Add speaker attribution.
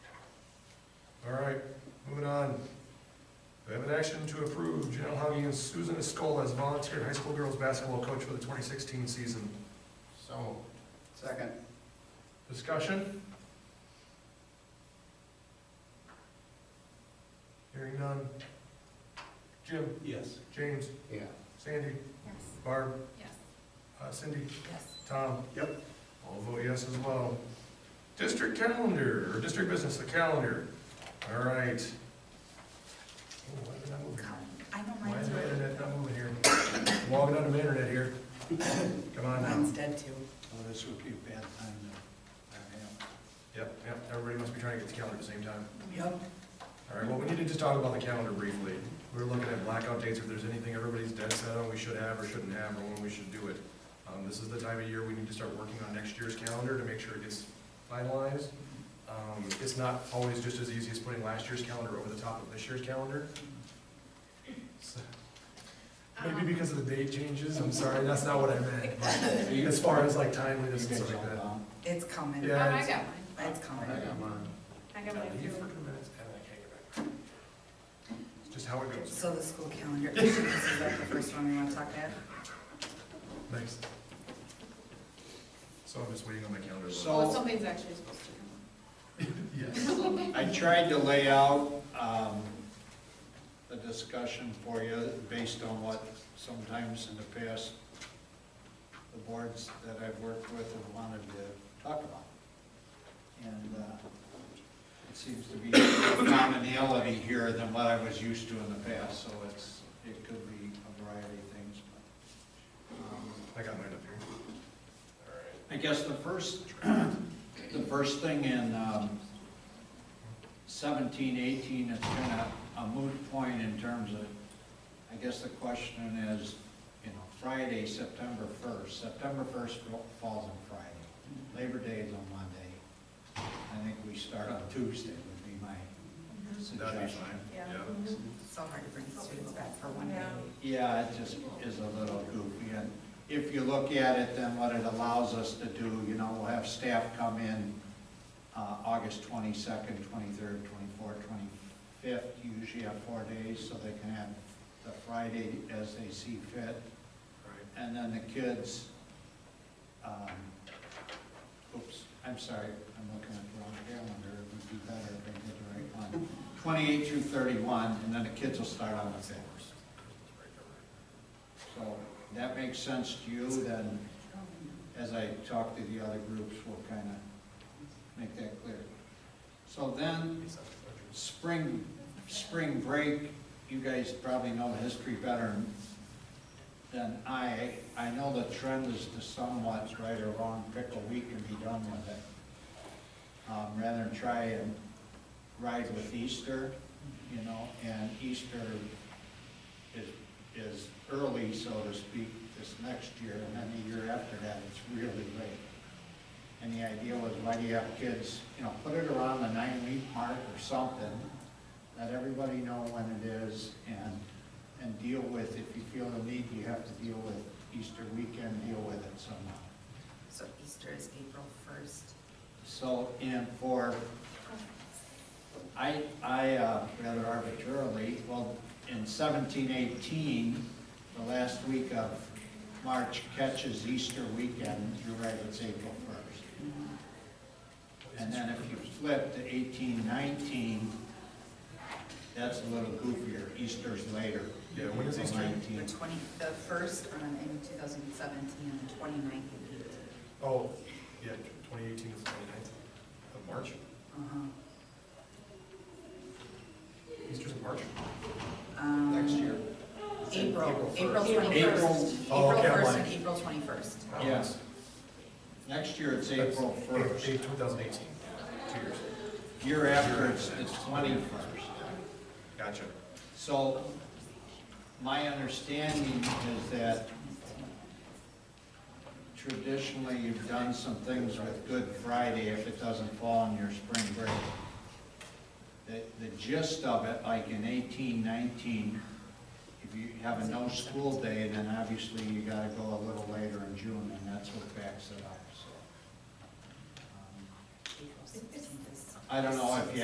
Speaker 1: All right, moving on. We have an action to approve Janelle Hoggy and Susan Escola as volunteer high school girls basketball coach for the 2016 season.
Speaker 2: So moved.
Speaker 3: Second.
Speaker 1: Discussion? Hearing none. Jim,
Speaker 2: Yes.
Speaker 1: James,
Speaker 2: Yeah.
Speaker 1: Sandy,
Speaker 4: Yes.
Speaker 1: Barb,
Speaker 4: Yes.
Speaker 1: uh, Cindy,
Speaker 4: Yes.
Speaker 1: Tom.
Speaker 2: Yep.
Speaker 1: I'll vote yes as well. District calendar, or district business, the calendar. All right. Oh, why did I move here?
Speaker 4: I know
Speaker 1: Why is
Speaker 4: mine's
Speaker 1: my
Speaker 4: red.
Speaker 1: internet not moving here? I'm Logging on to my internet here. Come on now.
Speaker 4: Mine's dead too.
Speaker 2: Well, Oh, this would be a bad time to, I
Speaker 1: Yep, yep, everybody must be trying to get the calendar at the same time.
Speaker 4: Yep.
Speaker 1: All right, well, we need to just talk about the calendar briefly. We're looking at blackout dates, if there's anything everybody's dead set on we should have or shouldn't have, or when we should do it. Um, this is the time of year we need to start working on next year's calendar to make sure it gets finalized. Um, it's not always just as easy as putting last year's calendar over the top of this year's calendar. So- Maybe because of the date changes, I'm sorry, that's not what I meant, but
Speaker 2: am.
Speaker 1: as far as like timeliness and stuff like that.
Speaker 4: It's coming.
Speaker 1: Yeah.
Speaker 5: I got mine.
Speaker 4: It's
Speaker 2: I
Speaker 4: coming.
Speaker 2: got mine.
Speaker 5: I got
Speaker 1: Now
Speaker 5: mine.
Speaker 1: leave for
Speaker 5: too.
Speaker 1: two minutes and I can't get back. It's just how it goes.
Speaker 4: So the school calendar, this is like the first one we want to talk about.
Speaker 1: Thanks. So I'm just waiting on my calendar. to load.
Speaker 2: So-
Speaker 5: Well, something's actually supposed to come up.
Speaker 1: Yes.
Speaker 2: I tried to lay out, um, the discussion for you based on what sometimes in the past, the boards that I've worked with have wanted to talk about. And, uh, it seems to be a commonality here than what I was used to in the past, so it's, it could be a variety of things. but, um,
Speaker 1: I got mine up here. All right.
Speaker 2: I guess the first, the first thing in um, 17, 18, it's kind of a moot point in terms of, I guess the question is, you know, Friday, September 1st. September 1st falls on Friday. Labor Day is on Monday. I think we start on Tuesday would be my
Speaker 1: That'd be
Speaker 2: suggestion.
Speaker 1: fine.
Speaker 5: Yeah.
Speaker 4: It's so hard to bring students back for one day.
Speaker 2: Yeah, it just is a little goofy, and if you look at it, then what it allows us to do, you know, we'll have staff come in uh, August twenty-second, twenty-third, twenty-fourth, twenty-fifth, you usually have four days, so they can have the Friday as they see fit.
Speaker 1: All
Speaker 2: And then the kids, um, oops, I'm sorry, I'm looking at the wrong calendar, it would be better if I did the right one. Twenty-eight through thirty-one, and then the kids will start on the fifth. So that makes sense to you, then as I talk to the other groups, we'll kind of make that clear. So then, spring, spring break, you guys probably know the history better than I. I know the trend is to somewhat, right or wrong, pick a week and be done with it. Um, rather than try and ride with Easter, you know, and Easter is, is early, so to speak, this next year, and then the year after that, it's really late. And the idea was, why do you have kids, you know, put it around the nine-week mark or something, let everybody know when it is, and, and deal with, if you feel the need, you have to deal with Easter weekend, deal with it somehow.
Speaker 4: So Easter is April first.
Speaker 2: So, and for, I, I, uh, rather arbitrarily, well, in seventeen eighteen, the last week of March catches Easter weekend, you're right, it's April first. And then if you flip to eighteen nineteen, that's a little goofier, Easter's later.
Speaker 1: Yeah, when is Easter?
Speaker 2: 19.
Speaker 4: The twenty, the first on in two thousand seventeen and the twenty-ninth and eighteen.
Speaker 1: right. Oh, yeah, twenty eighteen is twenty-ninth of March.
Speaker 4: Uh-huh.
Speaker 1: Easter's in March.
Speaker 4: Um,
Speaker 2: Next year.
Speaker 4: April,
Speaker 1: April
Speaker 4: April
Speaker 5: first.
Speaker 4: twenty-first.
Speaker 1: Oh, okay, I'm
Speaker 4: April first
Speaker 1: like-
Speaker 4: and April twenty-first.
Speaker 2: Yes. Next year, it's
Speaker 1: That's
Speaker 2: April first.
Speaker 1: Eight, two thousand eighteen, two years.
Speaker 2: Year after, it's, it's twenty-first.
Speaker 1: Gotcha.
Speaker 2: So, my understanding is that traditionally, you've done some things with Good Friday if it doesn't fall on your spring break. The, the gist of it, like in eighteen nineteen, if you have a no-school day, then obviously you gotta go a little later in June, and that's what backs it up, so. Um, I don't know if you